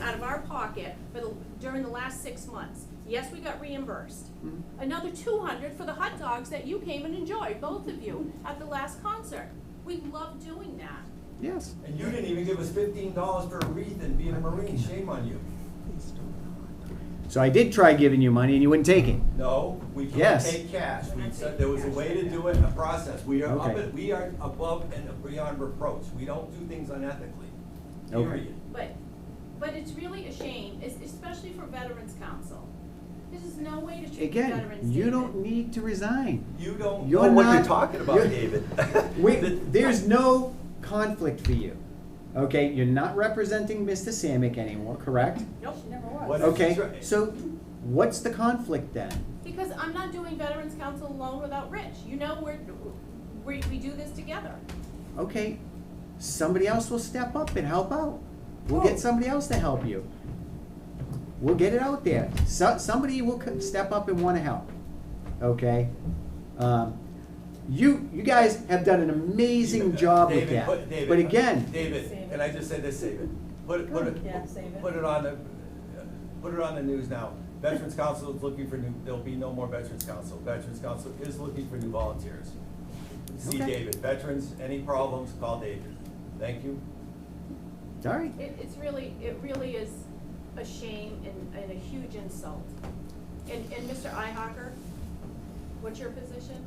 out of our pocket for the, during the last six months. Yes, we got reimbursed. Mhm. Another two hundred for the hot dogs that you came and enjoyed, both of you, at the last concert. We love doing that. Yes. And you didn't even give us fifteen dollars for a wreath and being a Marine, shame on you. So I did try giving you money and you wouldn't take it. No, we can't Yes. take cash, we said there was a way to do it, and a process, we are up, Okay. at- we are above and beyond reproach, we don't do things unethically, Okay. period. But, but it's really a shame, es- especially for Veterans Council. This is no way to treat the Again, veterans. you David. don't need to resign. You don't know You're what you're not- talking about, you're- David. We, The- there's no conflict for you. Okay, you're not representing Mr. Samick anymore, correct? Nope, never What was. is Okay, this- so what's the conflict then? Because I'm not doing Veterans Council alone without Rich. You know, we're, we, we do this together. Okay, somebody else will step up and help out. We'll Oh. get somebody else to help you. We'll get it out there. So, somebody will co- step up and wanna help, okay? Um, you, you guys have done an amazing David, job with David, that. put- David, But again, David, Save it. and I just said this, save it. Put it, put it, Yeah, save it. put it on the, uh, put it on the news now. Veterans Council is looking for new, there'll be no more Veterans Council. Veterans Council is looking for new volunteers. See Okay. David, veterans, any problems, call David. Thank you. sorry, It, it's really, it really is a shame and, and a huge insult. And, and Mr. Ihawker, what's your position?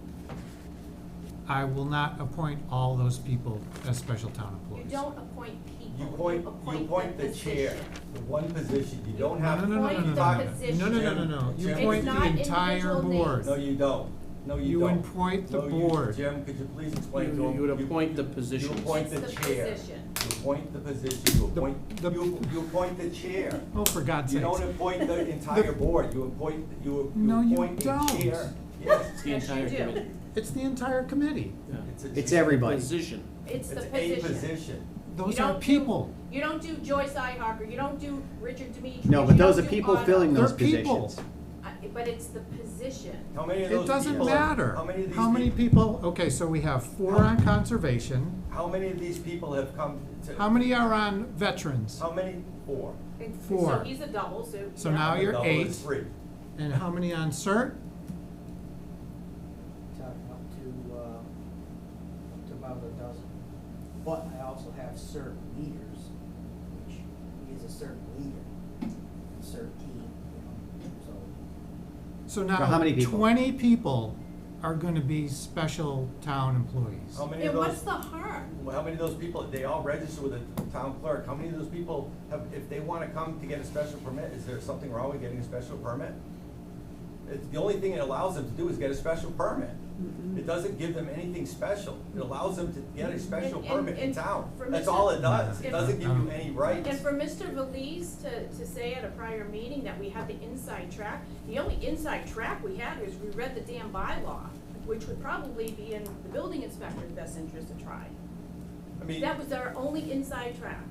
I will not appoint all those people as special town You employees. don't appoint people, You point, you point the chair, position. the one position, you don't No, have. no, no, no, Appoint no, the no, position. no, no, no, no, no, you Jim, appoint It's not the entire individual board. No, you don't. No, you You don't. appoint the No, you- board. Jim, could you please explain to You- him? you would appoint the You positions. appoint It's the the chair. position. You appoint the position, you The- appoint, the- you, you appoint the chair. Oh, for God's You sake. don't appoint the entire board, you appoint, you, you No, you appoint the don't. chair. Yes, It's the Yes, you entire do. committee. It's the entire committee. Yeah. it's a. it's chair. everybody. Position. It's the It's position. a position. Those You are don't do- people. You don't do Joyce Ihawker, you don't do Richard Demetrius, No, but you those don't are do people Otto. filling They're those people. positions. I- But it's the position. How many of those people? It doesn't matter. How many of these? How many peop- people, okay, so we have four on conservation. How many of these people have come to? How many are on veterans? How many? Four. It's- So Four. he's a double, so. So yeah. now you're Double eight. is three. And how many on CERT? talking up to, uh, up to about a dozen. But I also have certain leaders, which he is a certain leader, certain team, you know, so. So how now, many people? twenty people are gonna be special town employees. How many of And those? what's the harm? Well, how many of those people, they all register with the town clerk, how many of those people have, if they wanna come to get a special permit, is there something wrong with getting a special permit? It's, the only thing it allows them to do is get a special permit. It doesn't give them anything special, it allows them to get a Mm-hmm. special And- and- permit in and town, for that's Mr. all it does, it If- doesn't give you Um, any rights. And for Mr. Valise to, to say at a prior meeting that we had the inside track, the only inside track we had was we read the damn bylaw, which would probably be in the building inspector's best interest to try. I mean, That was our only inside track.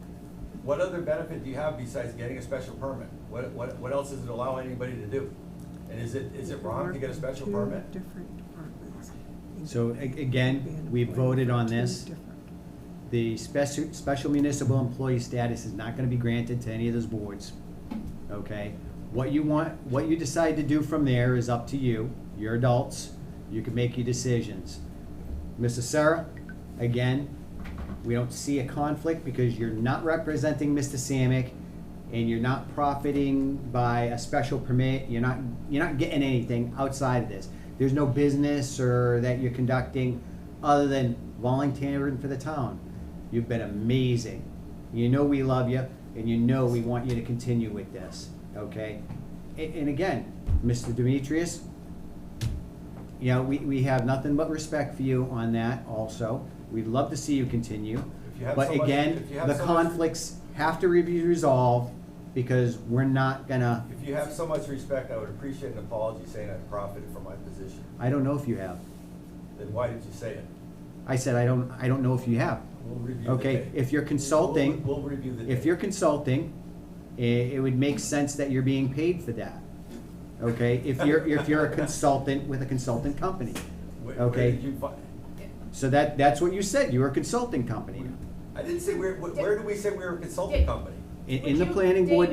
what other benefit do you have besides getting a special permit? What, what, what else does it allow anybody to do? And is it, is it wrong to get a special permit? So a- again, we voted on this. The special, special municipal employee status is not gonna be granted to any of those boards, okay? What you want, what you decide to do from there is up to you, you're adults, you can make your decisions. Mrs. Sarah, again, we don't see a conflict because you're not representing Mr. Samick and you're not profiting by a special permit, you're not, you're not getting anything outside of this. There's no business or that you're conducting other than volunteering for the town. You've been amazing. You know we love you and you know we want you to continue with this, okay? And, and again, Mr. Demetrius, you know, we, we have nothing but respect for you on that also. We'd love to see you continue. If you have But so much- again, if you have the so much- conflicts have to be resolved because we're not gonna, If you have so much respect, I would appreciate an apology saying I profited from my position. I don't know if you have. Then why did you say it? I said, I don't, I don't know if you have. We'll review the Okay, tape. if you're consulting, We'll, we'll review the if tape. you're consulting, i- it, it would make sense that you're being paid for that. Okay, if you're, if you're a consultant with a consultant company. Where- where Okay. did you fi- So that, that's what you said, you were a consulting company. I didn't say, where, where where did we say we were a consulting Dick. company? In, Would in the you- planning board